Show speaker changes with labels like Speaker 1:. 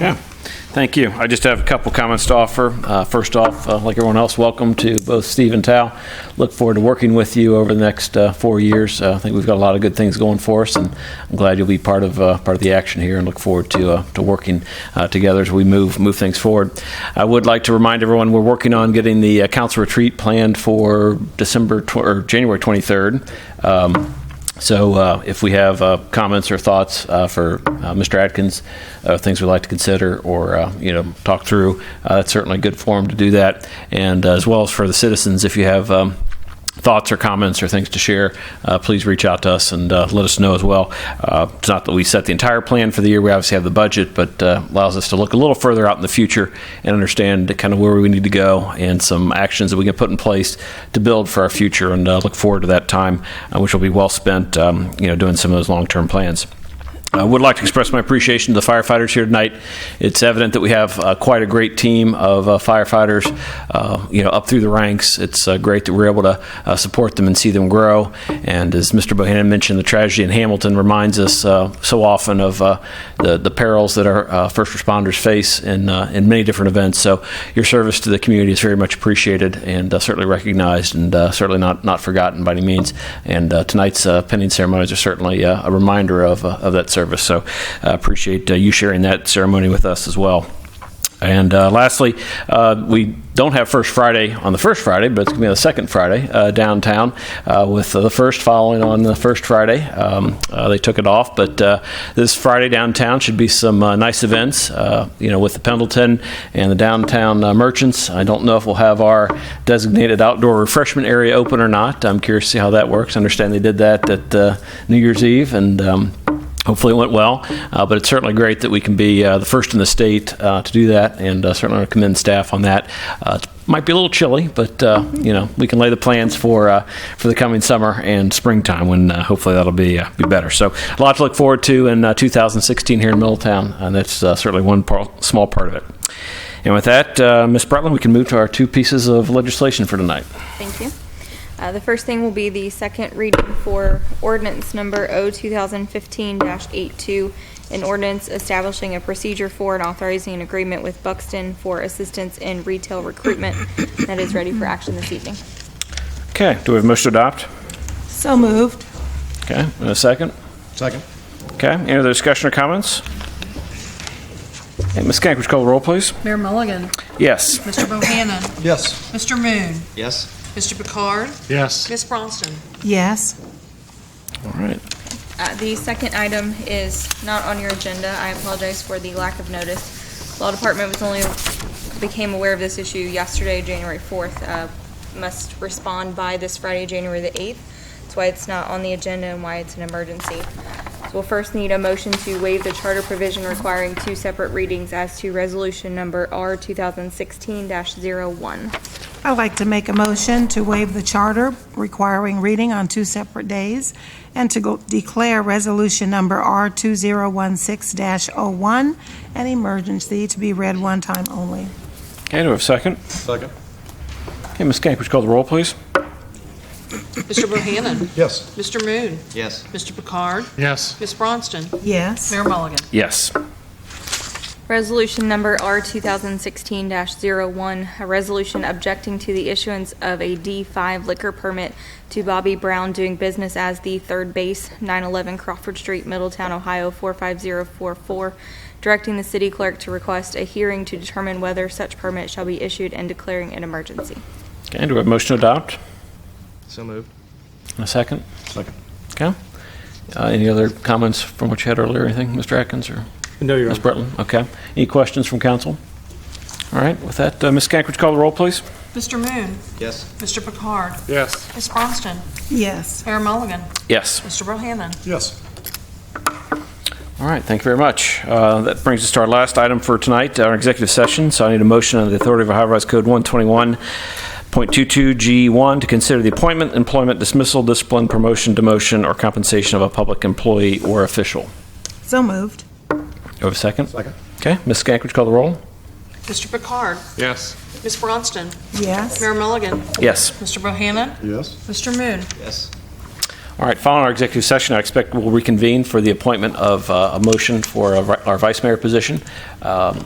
Speaker 1: Thank you. I just have a couple comments to offer. Uh, First off, uh, like everyone else, welcome to both Steve and Tal. Look forward to working with you over the next uh, four years. Uh, I think we've got a lot of good things going for us, and I'm glad you'll be part of, uh, part of the action here and look forward to, uh, to working uh, together as we move, move things forward. I would like to remind everyone, we're working on getting the uh, council retreat planned for December, tw- or January 23rd. Um, so uh, if we have uh, comments or thoughts uh, for uh, Mr. Atkins, uh, things we'd like to consider or, uh, you know, talk through, uh, that's certainly a good forum to do that. And uh, as well as for the citizens, if you have um, thoughts or comments or things to share, uh, please reach out to us and uh, let us know as well. Uh, It's not that we set the entire plan for the year, we obviously have the budget, but uh, allows us to look a little further out in the future and understand kind of where we need to go and some actions that we can put in place to build for our future and uh, look forward to that time, uh, which will be well spent, um, you know, doing some of those long-term plans. I would like to express my appreciation to the firefighters here tonight. It's evident that we have uh, quite a great team of uh, firefighters, uh, you know, up through the ranks. It's uh, great that we're able to uh, support them and see them grow. And as Mr. Bohannon mentioned, the tragedy in Hamilton reminds us uh, so often of uh, the the perils that our uh, first responders face in uh, in many different events. So your service to the community is very much appreciated and uh, certainly recognized and uh, certainly not not forgotten by any means. And uh, tonight's uh, pending ceremonies are certainly uh, a reminder of, uh, of that service. So I appreciate uh, you sharing that ceremony with us as well. And uh, lastly, uh, we don't have First Friday on the first Friday, but it's going to be on the second Friday uh, downtown, uh, with the first following on the first Friday. Um, uh, they took it off, but uh, this Friday downtown should be some uh, nice events, uh, you know, with the Pendleton and the downtown uh, merchants. I don't know if we'll have our designated outdoor refreshment area open or not. I'm curious to see how that works. I understand they did that at uh, New Year's Eve, and um, Hopefully it went well, uh, but it's certainly great that we can be uh, the first in the state uh, to do that, and uh, certainly want to commend staff on that. Uh, it might be a little chilly, but uh, you know we can lay the plans for uh, for the coming summer and springtime when uh, hopefully that'll be uh, be better. So a lot to look forward to in uh, 2016 here in Middletown, and that's uh, certainly one part, small part of it. And with that, uh, Ms. Bretland, we can move to our two pieces of legislation for tonight.
Speaker 2: Thank you. Uh, The first thing will be the second reading for ordinance number O 2015-82, an ordinance establishing a procedure for and authorizing an agreement with Buxton for assistance in retail recruitment that is ready for action this evening.
Speaker 1: Okay, do we have a motion to adopt?
Speaker 3: So moved.
Speaker 1: Okay, and a second.
Speaker 4: Second.
Speaker 1: Okay, any other discussion or comments? Hey, Ms. Kank, would you call the roll, please?
Speaker 3: Mayor Mulligan.
Speaker 1: Yes.
Speaker 3: Mr. Bohannon.
Speaker 4: Yes.
Speaker 3: Mr. Moon.
Speaker 4: Yes.
Speaker 3: Mr. Picard.
Speaker 4: Yes.
Speaker 3: Miss Bronston.
Speaker 5: Yes.
Speaker 1: All right.
Speaker 2: Uh, The second item is not on your agenda. I apologize for the lack of notice. Law Department was only, became aware of this issue yesterday, January 4th. Uh, Must respond by this Friday, January the 8th. That's why it's not on the agenda and why it's an emergency. So We'll first need a motion to waive the charter provision requiring two separate readings as to resolution number R 2016-01.
Speaker 5: I'd like to make a motion to waive the charter requiring reading on two separate days and to go- declare Resolution Number R2016-01 an emergency to be read one time only.
Speaker 1: Okay, do we have a second?
Speaker 4: Second.
Speaker 1: Okay, Ms. Kank, would you call the roll, please?
Speaker 3: Mr. Bohannon.
Speaker 4: Yes.
Speaker 3: Mr. Moon.
Speaker 4: Yes.
Speaker 3: Mr. Picard.
Speaker 4: Yes.
Speaker 3: Miss Bronston.
Speaker 5: Yes.
Speaker 3: Mayor Mulligan.
Speaker 1: Yes.
Speaker 2: Resolution number R 2016-01, a resolution objecting to the issuance of a D5 liquor permit to Bobby Brown doing business as the third base, 911 Crawford Street, Middletown, Ohio 45044, directing the city clerk to request a hearing to determine whether such permit shall be issued and declaring an emergency.
Speaker 1: Okay, do we have a motion to adopt?
Speaker 4: So moved.
Speaker 1: And a second?
Speaker 4: Second.
Speaker 1: Okay. Uh, Any other comments from what you had earlier, anything, Mr. Atkins or
Speaker 4: No, Your
Speaker 1: Ms. Bretland? Okay. Any questions from council? All right, with that, uh, Ms. Kank, would you call the roll, please?
Speaker 3: Mr. Moon.
Speaker 4: Yes.
Speaker 3: Mr. Picard.
Speaker 4: Yes.
Speaker 3: Miss Bronston.
Speaker 5: Yes.
Speaker 3: Mayor Mulligan.
Speaker 1: Yes.
Speaker 3: Mr. Bohannon.
Speaker 4: Yes.
Speaker 1: All right, thank you very much. Uh, That brings us to our last item for tonight, our executive session. So I need a motion under the authority of Ohio Revised Code 121.22G1 to consider the appointment, employment, dismissal, discipline, promotion, demotion, or compensation of a public employee or official.
Speaker 5: So moved.
Speaker 1: Do I have a second?
Speaker 4: Second.
Speaker 1: Okay, Ms. Skank, would you call the roll?
Speaker 3: Mr. Picard.
Speaker 4: Yes.
Speaker 3: Miss Bronston.
Speaker 5: Yes.
Speaker 3: Mayor Mulligan.
Speaker 1: Yes.
Speaker 3: Mr. Bohannon.
Speaker 4: Yes.
Speaker 3: Mr. Moon.
Speaker 4: Yes.
Speaker 1: All right, following our executive session, I expect we'll reconvene for the appointment of uh, a motion for a- our vice mayor position. Um,